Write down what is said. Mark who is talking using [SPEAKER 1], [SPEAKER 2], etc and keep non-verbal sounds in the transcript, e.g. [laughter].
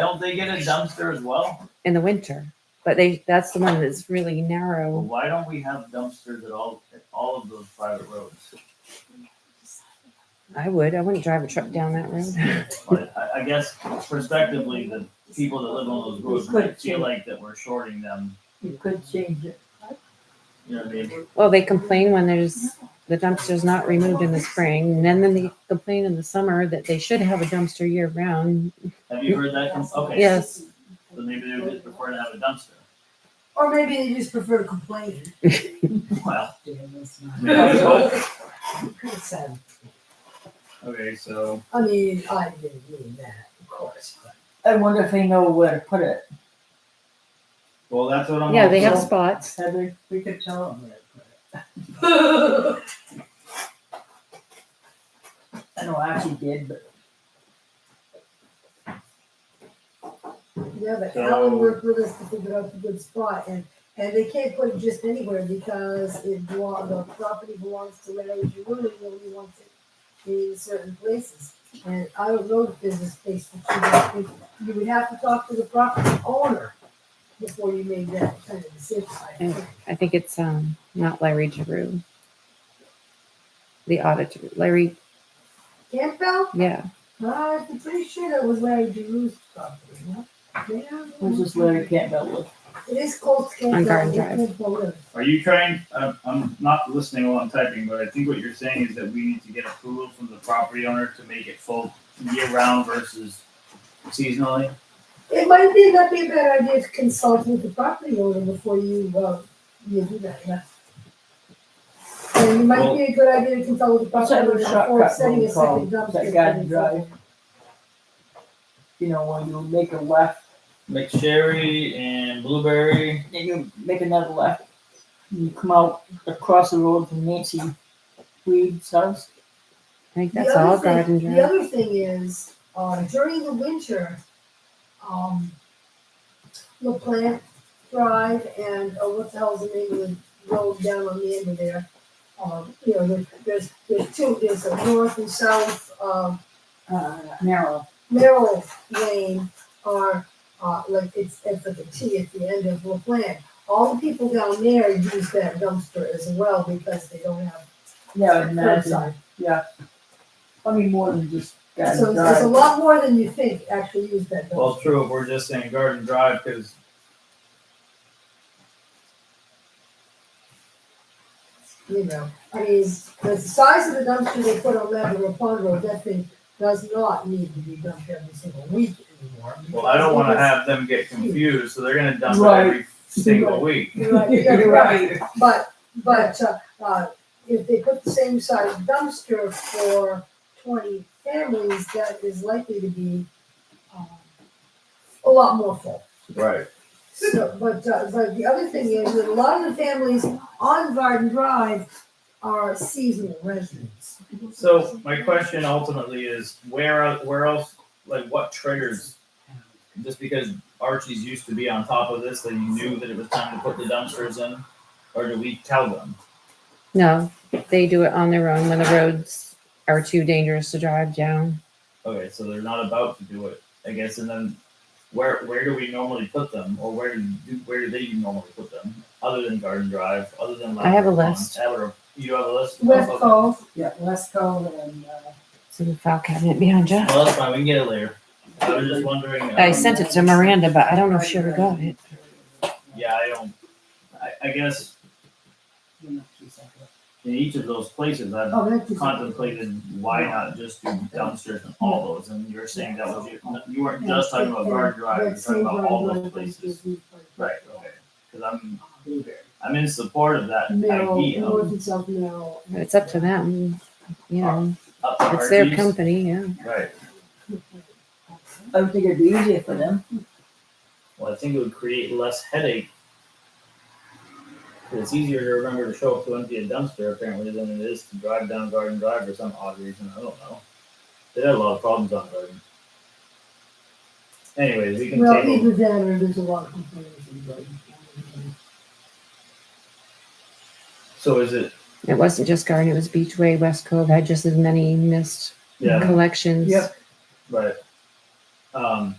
[SPEAKER 1] Don't they get a dumpster as well?
[SPEAKER 2] in the winter. But they, that's the one that's really narrow.
[SPEAKER 1] Why don't we have dumpsters at all, at all of those private roads?
[SPEAKER 2] I would, I wouldn't drive a truck down that road.
[SPEAKER 1] But I, I guess prospectively, the people that live on those roads might feel like that we're shorting them,
[SPEAKER 3] You could change it.
[SPEAKER 1] you know what I mean?
[SPEAKER 2] Well, they complain when there's, the dumpster's not removed in the spring, and then then they complain in the summer that they should have a dumpster year round.
[SPEAKER 1] Have you heard that? com- Okay.
[SPEAKER 2] Yes.
[SPEAKER 1] So maybe they would just prefer to have a dumpster.
[SPEAKER 3] Or maybe they just prefer to complain.
[SPEAKER 1] Well,
[SPEAKER 3] Damn, that's
[SPEAKER 1] I mean, that's
[SPEAKER 3] not-
[SPEAKER 1] what-
[SPEAKER 3] Good sound.
[SPEAKER 1] okay, so,
[SPEAKER 3] I mean, I didn't mean that, of course, but
[SPEAKER 4] I wonder if they know where to put it.
[SPEAKER 1] well, that's what I'm.
[SPEAKER 2] Yeah, they have
[SPEAKER 1] also-
[SPEAKER 2] spots.
[SPEAKER 4] Said we, we could tell them where to put it.
[SPEAKER 3] [laughs]
[SPEAKER 4] I know Archie did, but
[SPEAKER 3] yeah, but
[SPEAKER 1] So-
[SPEAKER 3] Alan worked with us to figure out the good spot and, and they can't put it just anywhere because it belong, the property belongs to Larry Giroux and he only wants it in certain places. And I don't know if there's a space for two hundred people. You would have to talk to the property owner before you made that kind of decision. I
[SPEAKER 2] And
[SPEAKER 3] think.
[SPEAKER 2] I think it's, um, not Larry Giroux. The auditor, Larry,
[SPEAKER 3] Campbell?
[SPEAKER 2] yeah,
[SPEAKER 3] I'm pretty sure that was Larry Giroux's property, no? Yeah.
[SPEAKER 4] it was just Larry Campbell with.
[SPEAKER 3] It is called Campbell.
[SPEAKER 2] On Garden Drive.
[SPEAKER 1] Are you trying, I'm, I'm not listening while I'm typing, but I think what you're saying is that we need to get approval from the property owner to make it full year round versus seasonally?
[SPEAKER 3] It might be, not be a bad idea to consult with the property owner before you, uh, you do that, yeah. And it might be a good idea to consult with the
[SPEAKER 4] Well,
[SPEAKER 3] property owner
[SPEAKER 4] it's not
[SPEAKER 3] before
[SPEAKER 4] cut,
[SPEAKER 3] setting a
[SPEAKER 4] it's
[SPEAKER 3] second
[SPEAKER 4] called
[SPEAKER 3] dumpster.
[SPEAKER 4] that Garden Drive. You know, when you make a left
[SPEAKER 1] McSherry and Blueberry.
[SPEAKER 4] and you make another left, and you come out across the road from Nancy Weed's house.
[SPEAKER 2] I think
[SPEAKER 3] The
[SPEAKER 2] that's
[SPEAKER 3] other
[SPEAKER 2] all
[SPEAKER 3] thing-
[SPEAKER 2] garden
[SPEAKER 3] The
[SPEAKER 2] drive.
[SPEAKER 3] other thing is, uh, during the winter, um, La Plante Drive and, oh, what the hell's the name of the road down on the end of there? Um, you know, there- there's, there's two, there's a north and south, um,
[SPEAKER 4] Uh, narrow.
[SPEAKER 3] Merrill Lane are, uh, like, it's, it's like a T at the end of La Plante. All the people down there use that dumpster as well because they don't have
[SPEAKER 4] Yeah, and that's,
[SPEAKER 3] curbside.
[SPEAKER 4] yeah. I mean, more than just
[SPEAKER 3] So
[SPEAKER 4] Garden
[SPEAKER 3] there's a
[SPEAKER 4] Drive.
[SPEAKER 3] lot more than you think actually use that dumpster.
[SPEAKER 1] Well, true, if we're just saying Garden Drive, because
[SPEAKER 3] you know, I mean, the size of the dumpster they put on Labrador Pond Road, that thing does not need to be dumped every single week anymore.
[SPEAKER 1] well, I don't want to
[SPEAKER 3] because
[SPEAKER 1] have them get confused, so they're gonna dump it
[SPEAKER 4] Right.
[SPEAKER 1] every single week.
[SPEAKER 3] You're
[SPEAKER 4] [laughs]
[SPEAKER 3] right, [laughs] you're right, but, but, uh, uh, if they put the same size dumpster for twenty families, that is likely to be, um, a lot more full.
[SPEAKER 1] Right.
[SPEAKER 3] So, but, uh, but the other thing is that a lot of the families on Garden Drive are seasonal residents.
[SPEAKER 1] So my question ultimately is, where el- where else, like, what triggers? Just because Archie's used to be on top of this, that you knew that it was time to put the dumpsters in, or do we tell them?
[SPEAKER 2] No, they do it on their own when the roads are too dangerous to drive down.
[SPEAKER 1] Okay, so they're not about to do it, I guess, and then where where do we normally put them, or where do you, where do they normally put them, other than Garden Drive, other than
[SPEAKER 2] I have a
[SPEAKER 1] Labrador Pond?
[SPEAKER 2] list.
[SPEAKER 1] Labrador- you have a list.
[SPEAKER 3] West
[SPEAKER 1] Okay.
[SPEAKER 3] Cove,
[SPEAKER 4] Yeah, let's go and, uh,
[SPEAKER 2] See the file cabinet behind you.
[SPEAKER 1] Well, that's fine. We can get it later. I was just wondering.
[SPEAKER 2] I
[SPEAKER 1] um,
[SPEAKER 2] sent it to Miranda, but I don't know if she ever got it.
[SPEAKER 1] Yeah, I don't. I, I guess in each of those places, I've
[SPEAKER 3] oh, that's.
[SPEAKER 1] contemplated why not just do dumpsters and all those. And you're saying that was your, you weren't just talking about Guard Drive. You're talking about all those places. Right. Okay. Because I'm I'm in support of that
[SPEAKER 3] Merrill,
[SPEAKER 1] idea.
[SPEAKER 3] north and south Merrill.
[SPEAKER 2] It's up to them, you know,
[SPEAKER 1] Up to
[SPEAKER 2] it's their
[SPEAKER 1] Archie's.
[SPEAKER 2] company, yeah.
[SPEAKER 1] Right.
[SPEAKER 4] I would think it'd be easier for them.
[SPEAKER 1] Well, I think it would create less headache. 'Cause It's easier to remember to show up to empty a dumpster apparently than it is to drive down Garden Drive for some odd reason. I don't know. They had a lot of problems on Garden. Anyways, we can
[SPEAKER 3] Well,
[SPEAKER 1] table.
[SPEAKER 3] either that or there's a lot of complaints in Brighton.
[SPEAKER 1] So is it?
[SPEAKER 2] It wasn't just Garden, it was Beachway, West Cove had just as many missed
[SPEAKER 1] Yeah.
[SPEAKER 2] collections.
[SPEAKER 4] Yep.
[SPEAKER 1] Right. Um,